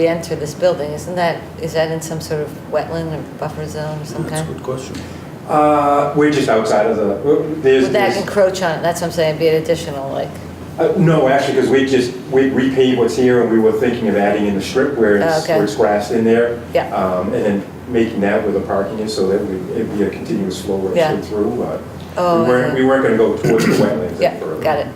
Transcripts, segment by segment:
we enter this building, isn't that, is that in some sort of wetland or buffer zone of some That's a kind? good question. Uh, we're just outside of the, there's. Would that there's- encroach on, that's what I'm saying, be an additional, like, Uh, No, actually, because we just, we repaved what's here, and we were thinking of adding in the strip where Oh, it's, okay. where it's grass in there. Yeah. Um, And then making that where the parking is, so that we- it'd be a continuous flow right Yeah. straight through, but Oh, we weren't, uh-huh. we weren't gonna go towards the wetlands. any yeah, further. got it.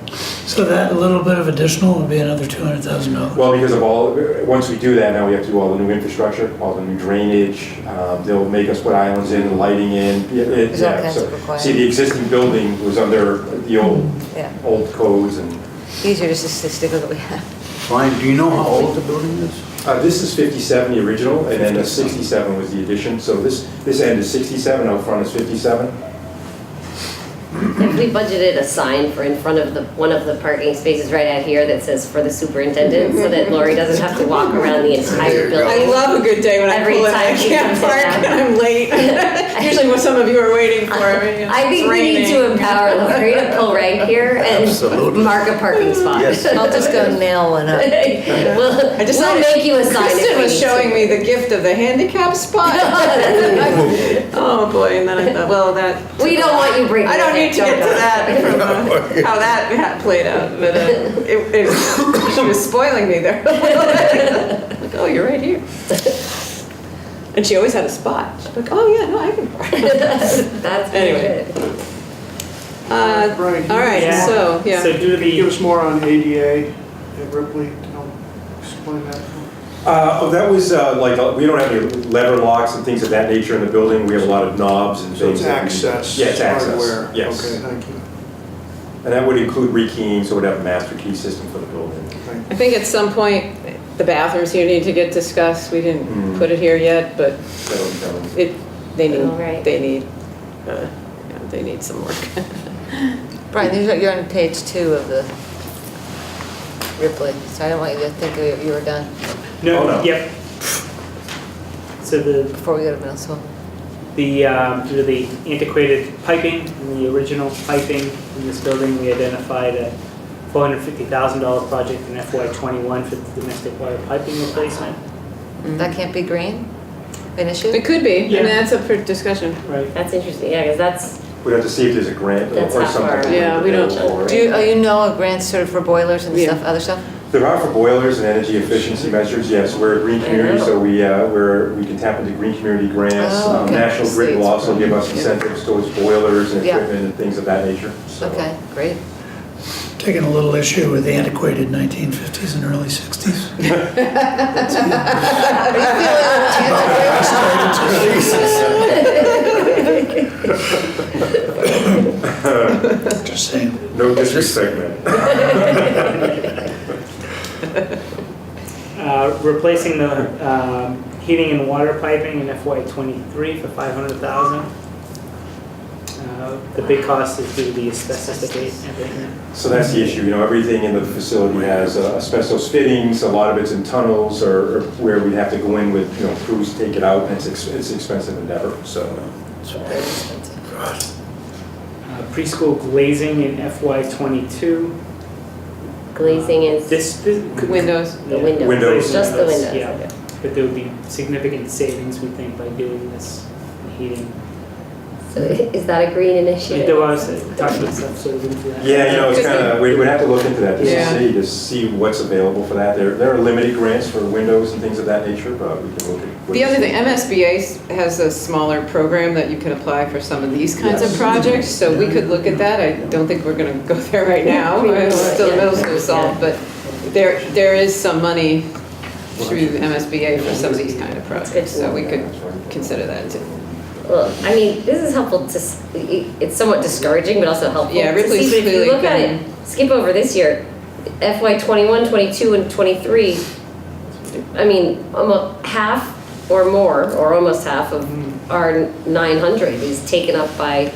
So that little bit of additional would be another two hundred thousand dollars. Well, because of all, once we do that, now we have to do all the new infrastructure, all the new drainage, um, they'll make us put islands in, lighting in. yeah, it- There's all yeah, kinds so- of requirements. See, the existing building was under the old, Yeah, old codes and, easier just to s- stick with what we have. Brian, do you know how old the building is? uh, this is fifty-seven, the original, and then the sixty-seven was the addition. So this, this end is sixty-seven, out front is fifty-seven. If we budgeted a sign for in front of the, one of the parking spaces right out here that says for the superintendent, so that Lori doesn't have to walk around the entire I building. love a good day when I Every pull in, I time she can't comes park down. and I'm late. Usually what some of you are waiting for, I mean, I think it's we need to raining. empower Lori to pull rank here and Absolutely. mark a parking spot. Yes. I'll just go nail one up. We'll, I we'll decided- make you a sign if Kristen we was need showing to. me the gift of the handicap spot. Oh, boy, and then I thought, well, that. We don't want you breaking. I don't need to get to don't. that, from, uh, how that ha- played out, but uh, it, it, she was spoiling me there. Like, oh, you're right here. And she always had a spot. She's like, oh, yeah, no, I can park. That's pretty Anyway. good. Uh, Right. all right, Yeah. so, yeah. So do the. Give us more on ADA at Ripley, I'll explain that. Uh, oh, that was, uh, like, uh, we don't have any lever locks and things of that nature in the building. We have a lot of knobs and So things. it's that we- access. Yeah, it's access, hardware. yes. Okay, thank you. And that would include rekeying, so we'd have a master key system for the building. Thank I think at some point, the bathrooms here need to get discussed. We didn't Mm. put it here yet, but That would be done. it, they Oh, right. need, they need, uh, yeah, they need some work. Brian, these are- you're on page two of the Ripley, so I don't want you to think that you were done Oh, no. No, yep. So the, before we go to middle school. the, um, due to the antiquated piping, and the original piping in this building, we identified a $450,000 project in FY '21 for the domestic water piping replacement. That can't be green? An issue? It could be, I Yeah. mean, that's up for discussion. Right. That's interesting, yeah, because that's, We'd have to see if there's a grant or- That's or not far something. away. Yeah, we don't- available. Do you, oh, you know of grants sort of for boilers and Yeah. stuff, other stuff? There are for boilers and energy efficiency measures, yes, we're a green I community, know. so we, uh, we're, we can tap into green community grants. Oh, Um, okay. National Grid will also give us Yeah. incentives towards boilers and Yeah. equipment and things of that nature, so. Okay, great. Taking a little issue with the antiquated nineteen fifties and early sixties. Just saying. No disrespect, man. Uh, Replacing the um, heating and water piping in FY '23 for $500,000. Uh, The big cost is due to the asbestos abatement. So that's the issue, you know, everything in the facility has uh, asbestos fittings, a lot of it's in tunnels or or where we'd have to go in with, you know, crews to take it out, and it's, ex- it's an expensive endeavor, so. Very expensive. Uh, Preschool glazing in FY '22. glazing is the This, this. could- Windows. Yeah. windows. Windows. Just the windows, Yeah. okay. But there would be significant savings, we think, by doing this heating. So is that a green initiative? There was, talked about stuff, so we'll do that. Yeah, you know, it's Just kind of, we'd we'd have to look into that, just Yeah. to see, just see what's available for that. There, there are limited grants for windows and things of that nature, but we can look at. what- The other thing, MSBA s- has a smaller program that you can apply for some of these kinds of Yes. projects, so we could look at that. I don't think we're gonna go there right now, We really it's still would, middle yeah. school solved, but there, there is some money through the MSBA for some of these kind of good projects, to so we could consider that too. Well, I mean, this is helpful to, s- it- it's somewhat discouraging, but also helpful. Yeah, to see. Ripley's But if clearly you look at it, been- skip over this year, FY '21, '22, and '23, I mean, almost half or more, or almost half of Mm-hmm. our 900 is taken up by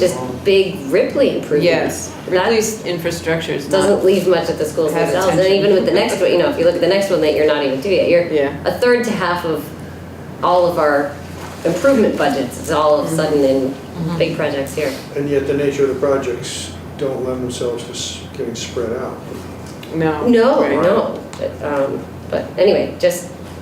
just big Ripley improvements. Yes, That- Ripley's infrastructure is not, doesn't leave much at the schools Has themselves. And attention. even with the next one, you know, if you look at the next one that you're not even doing yet, you're Yeah. a third to half of all of our improvement budgets. It's all of a sudden in big projects here. And yet the nature of the projects don't lend themselves to s- getting spread out. no. No, Right. no. But, um, but anyway, just